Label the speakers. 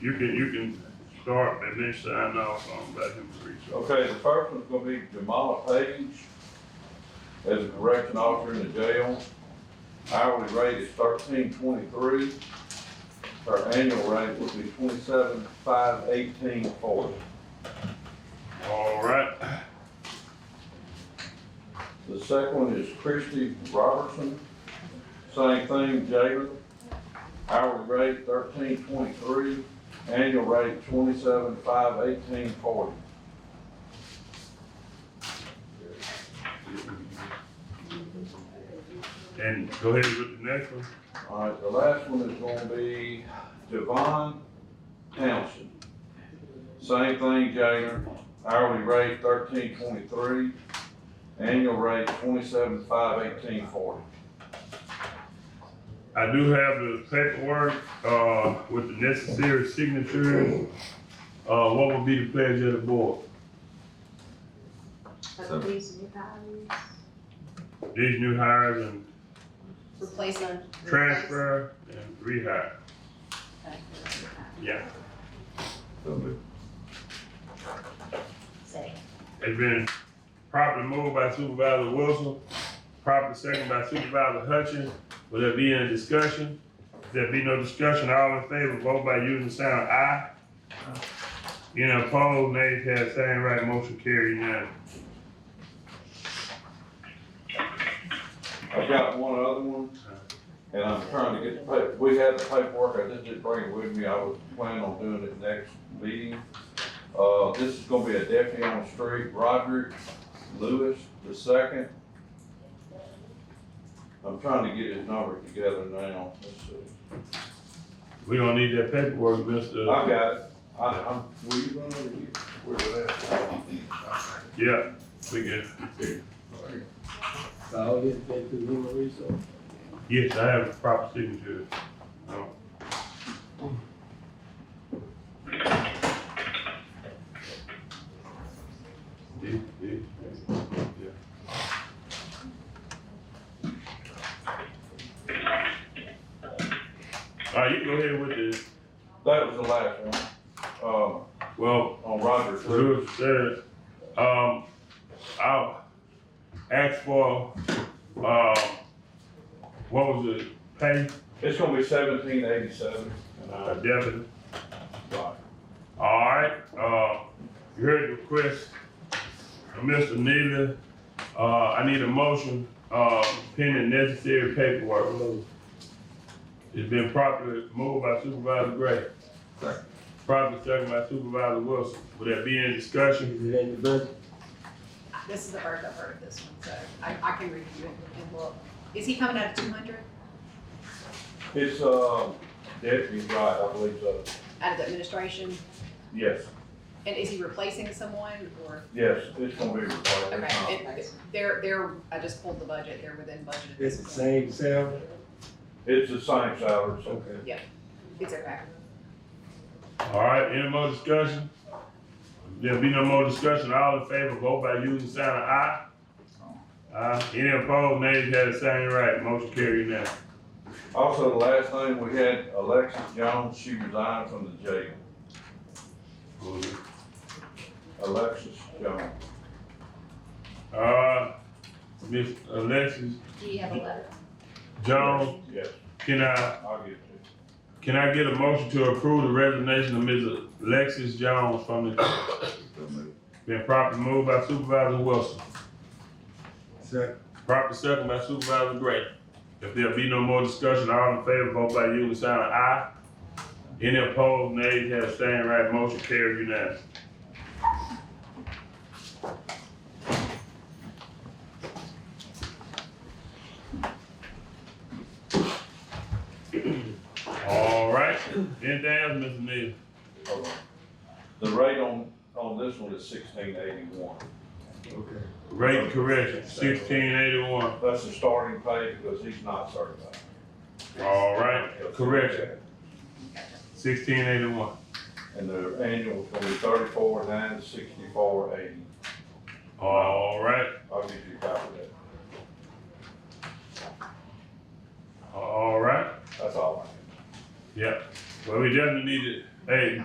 Speaker 1: You can, you can start and then sign off on that him three. so.
Speaker 2: Okay, the first one's gonna be Jamal Page as a correction officer in the jail. Hourly rate is thirteen twenty-three. Her annual rate would be twenty-seven five eighteen forty.
Speaker 1: All right,
Speaker 2: The second one is Christy Robertson, same thing, jailer. Hourly rate thirteen twenty-three, annual rate twenty-seven five eighteen forty.
Speaker 1: and go ahead with the next one.
Speaker 2: All right, the last one is gonna be Devon Townsend. Same thing, jailer, hourly rate thirteen twenty-three, annual rate twenty-seven five eighteen forty.
Speaker 1: I do have the paperwork, uh, with the necessary signatures. Uh, what would be the pleasure of the board?
Speaker 3: But these new values,
Speaker 1: These new hires and
Speaker 3: replacement.
Speaker 1: transfer and rehire, yeah.
Speaker 3: Say.
Speaker 1: It's been properly moved by Supervisor Wilson, properly second by Supervisor Hutchins. Will there be any discussion? If there be no discussion, all in favor, vote by using the sound aye. Any opposed, nays have same right, motion carried unanimous.
Speaker 2: I've got one other one, and I'm trying to get the paper, we had the paperwork, I just didn't bring it with me, I was planning on doing it next meeting. Uh, this is gonna be a deputy on the street, Roderick Lewis the second. I'm trying to get his number together now, let's see.
Speaker 1: We don't need that paperwork, Mr.
Speaker 2: I've got it, I, I'm, were you gonna, where was that?
Speaker 1: Yeah, we good.
Speaker 4: All this been through human resource.
Speaker 1: Yes, I have a proper signature. Oh. Yeah, yeah, yeah. All right, you go ahead with this.
Speaker 2: That was the last one,
Speaker 1: Well,
Speaker 2: uh, on Roderick Lewis.
Speaker 1: Lewis said, um, I'll ask for, um, what was the pay,
Speaker 2: It's gonna be seventeen eighty-seven an
Speaker 1: uh,
Speaker 2: hour.
Speaker 1: Devin? All right, uh, you heard the request of Mr. Neely. Uh, I need a motion, uh, pending necessary paperwork. It's been properly moved by Supervisor Gray.
Speaker 2: Second.
Speaker 1: Properly second by Supervisor Wilson. Would there be any discussion?
Speaker 4: Is it in the budget?
Speaker 3: This is the first I've heard of this one, so I, I can review it and look. Is he coming out of two hundred,
Speaker 2: It's, um, deputy, right, I believe so.
Speaker 3: out of the administration?
Speaker 2: Yes,
Speaker 3: And is he replacing someone or,
Speaker 2: yes, it's gonna be required.
Speaker 3: okay, it, they're, they're, I just pulled the budget, they're within budget at
Speaker 4: It's
Speaker 3: this
Speaker 4: the
Speaker 3: point.
Speaker 4: same salary?
Speaker 2: It's the same salary, so.
Speaker 3: It's okay.
Speaker 1: All right, any more discussion? If There be no more discussion. All in favor, vote by using sign of aye. Aye. Any opposed, nays have the same right. Motion carried now.
Speaker 2: Also, the last thing, we had Alexis Jones, she resigned from the jail, Alexis Jones.
Speaker 1: Uh, Miss Alexis
Speaker 3: Do you have a letter?
Speaker 1: Jones,
Speaker 2: Yes,
Speaker 1: can I,
Speaker 2: I'll get you.
Speaker 1: can I get a motion to approve the resignation of Ms. Alexis Jones from the, been properly moved by Supervisor Wilson,
Speaker 4: Second.
Speaker 1: properly second by Supervisor Gray. If there be no more discussion, all in favor, vote by you, sign of aye. Any opposed, nays have staying right, motion carried unanimous. All right, anything else, Mr. Neal?
Speaker 2: Hold on. The rate on, on this one is sixteen eighty-one.
Speaker 4: Okay.
Speaker 1: Rate correction, sixteen eighty-one,
Speaker 2: That's the starting pay because he's not certified.
Speaker 1: all right, correction, sixteen eighty-one,
Speaker 2: And the annual is gonna be thirty-four, nine, sixty-four, eighty.
Speaker 1: all right,
Speaker 2: I'll get you a copy of that.
Speaker 1: all right,
Speaker 2: That's all I have.
Speaker 1: yeah. Well, we definitely need to Hey,